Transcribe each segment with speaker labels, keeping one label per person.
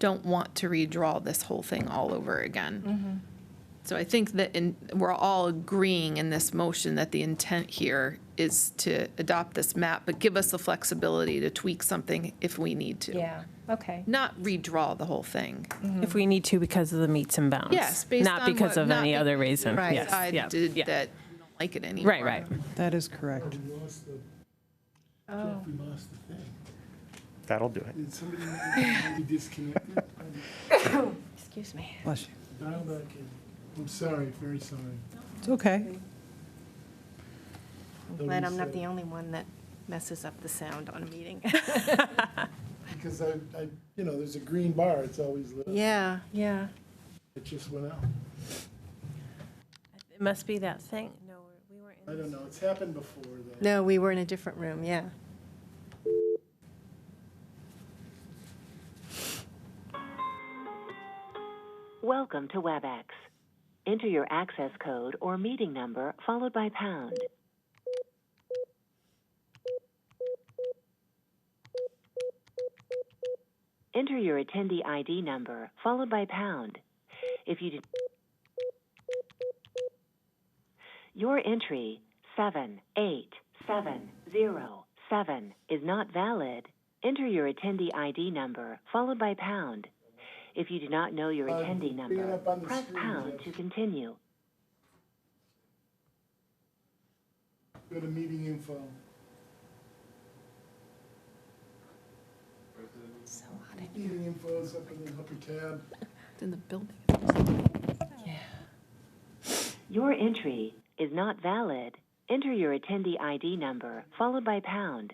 Speaker 1: don't want to redraw this whole thing all over again. So I think that in, we're all agreeing in this motion that the intent here is to adopt this map, but give us the flexibility to tweak something if we need to.
Speaker 2: Yeah, okay.
Speaker 1: Not redraw the whole thing.
Speaker 3: If we need to because of the meets and bounds.
Speaker 1: Yes, based on
Speaker 3: Not because
Speaker 1: what-
Speaker 3: of
Speaker 1: not
Speaker 3: any
Speaker 1: be-
Speaker 3: other reason.
Speaker 1: Right,
Speaker 3: Yes,
Speaker 1: I
Speaker 3: yeah,
Speaker 1: did
Speaker 3: yeah.
Speaker 1: that, I don't like it anymore.
Speaker 3: Right, right.
Speaker 4: That is correct.
Speaker 5: lost the,
Speaker 2: Oh.
Speaker 5: Jeffrey lost the thing.
Speaker 6: That'll do it.
Speaker 5: Did somebody maybe disconnect it?
Speaker 2: Excuse me.
Speaker 4: Bless you.
Speaker 5: Dial back in. I'm sorry, very sorry.
Speaker 4: It's okay.
Speaker 2: I'm glad I'm not the only one that messes up the sound on a meeting.
Speaker 5: Because I, I, you know, there's a green bar, it's always lit. up.
Speaker 2: Yeah, yeah.
Speaker 5: It just went out.
Speaker 3: It must be that thing. No, we weren't
Speaker 5: I don't know, it's happened before though.
Speaker 2: No, we were in a different room, yeah.
Speaker 7: Welcome to WebEx. Enter your access code or meeting number followed by pound. Enter your attendee ID number followed by pound. If you did your entry 78707 is not valid, enter your attendee ID number followed by pound. If you do not know your
Speaker 5: Uh,
Speaker 7: attendee
Speaker 5: bring it
Speaker 7: number,
Speaker 5: up on the
Speaker 7: press
Speaker 5: screen,
Speaker 7: pound
Speaker 5: Jeff.
Speaker 7: to continue.
Speaker 5: Go to meeting info. Meeting info is up in the upper tab.
Speaker 1: It's In the building.
Speaker 7: Your entry is not valid. Enter your attendee ID number followed by pound.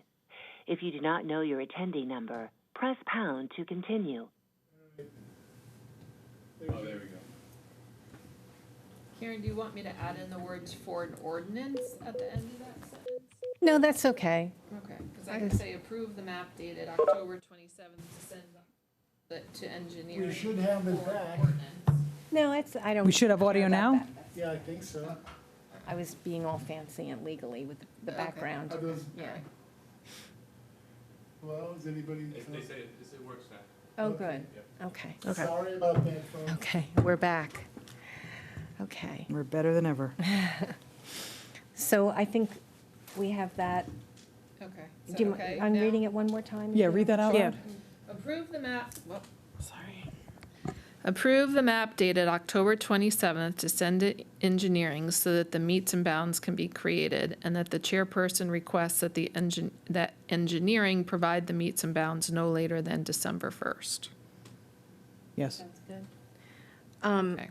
Speaker 7: If you do not know your attendee number, press pound to continue.
Speaker 1: Karen, do you want me to add in the words for an ordinance at the end of that sentence?
Speaker 2: No, that's okay.
Speaker 1: Okay, because I can say approve the map dated October 27th to send the- to engineering.
Speaker 5: We should have it
Speaker 1: for
Speaker 5: back.
Speaker 1: ordinance.
Speaker 2: No, it's, I don't.
Speaker 4: We should have audio
Speaker 2: care about
Speaker 4: now?
Speaker 2: that.
Speaker 5: Yeah, I think so.
Speaker 2: I was being all fancy and legally with the
Speaker 1: Okay.
Speaker 2: background.
Speaker 5: Are those,
Speaker 2: Yeah.
Speaker 5: well, is anybody?
Speaker 2: Oh, good. Okay.
Speaker 5: Sorry about that, folks.
Speaker 2: Okay, we're back. Okay.
Speaker 4: We're better than ever.
Speaker 2: So I think we have that.
Speaker 1: Okay.
Speaker 2: Do
Speaker 1: so,
Speaker 2: you mi-
Speaker 1: okay,
Speaker 2: I'm
Speaker 1: now-
Speaker 2: reading it one more time. if
Speaker 4: Yeah,
Speaker 2: you
Speaker 4: read that
Speaker 2: don't-
Speaker 4: out
Speaker 3: Yeah.
Speaker 4: loud.
Speaker 1: Approve the map, whoop, sorry. Approve the map dated October 27th to send it engineering so that the meets and bounds can be created and that the chairperson requests that the engine, that engineering provide the meets and bounds no later than December 1st.
Speaker 4: Yes.
Speaker 2: Um,
Speaker 1: Okay.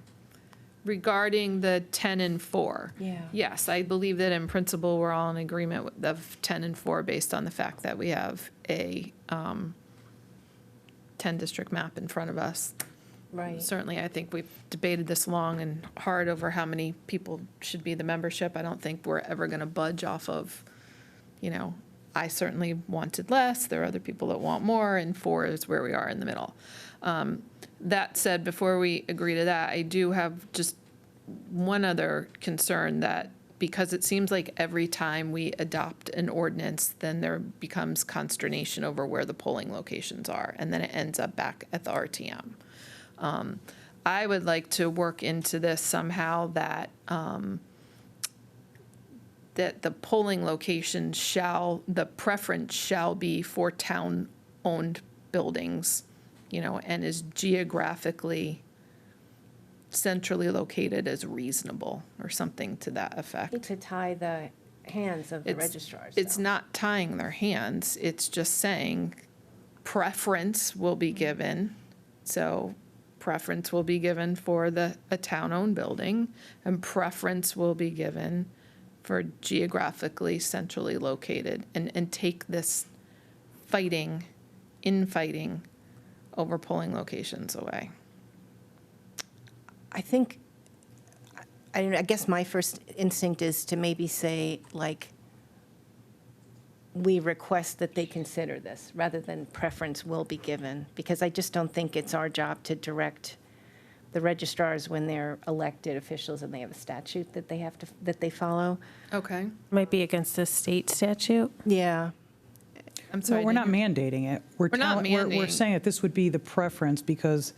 Speaker 1: Regarding the 10 and 4.
Speaker 2: Yeah.
Speaker 1: Yes, I believe that in principle, we're all in agreement with- of 10 and 4 based on the fact that we have a 10-district map in front of us.
Speaker 2: Right.
Speaker 1: Certainly, I think we've debated this long and hard over how many people should be the membership. I don't think we're ever going to budge off of, you know, I certainly wanted less, there are other people that want more, and four is where we are in the middle. Um, That said, before we agree to that, I do have just one other concern that because it seems like every time we adopt an ordinance, then there becomes consternation over where the polling locations are, and then it ends up back at the RTM. Um, I would like to work into this somehow that, um, that the polling location shall, the preference shall be for town-owned buildings, you know, and is geographically centrally located as reasonable, or something to that effect.
Speaker 2: Need to tie the hands of the
Speaker 1: It's-
Speaker 2: registrars.
Speaker 1: It's
Speaker 2: though.
Speaker 1: not tying their hands, it's just saying preference will be given. So preference will be given for the, a town-owned building, and preference will be given for geographically centrally located, and, and take this fighting, infighting over polling locations away.
Speaker 2: I think, I, I don't know, I guess my first instinct is to maybe say, like, we request that they consider this, rather than preference will be given, because I just don't think it's our job to direct the registrars when they're elected officials and they have a statute that they have to, that they follow.
Speaker 1: Okay.
Speaker 3: Might be against the state statute.
Speaker 2: Yeah.
Speaker 1: I'm sorry.
Speaker 4: So we're
Speaker 1: did
Speaker 4: not
Speaker 1: you-
Speaker 4: mandating it. We're
Speaker 1: We're not
Speaker 4: telling- We're
Speaker 1: mandating.
Speaker 4: saying that this would be the preference because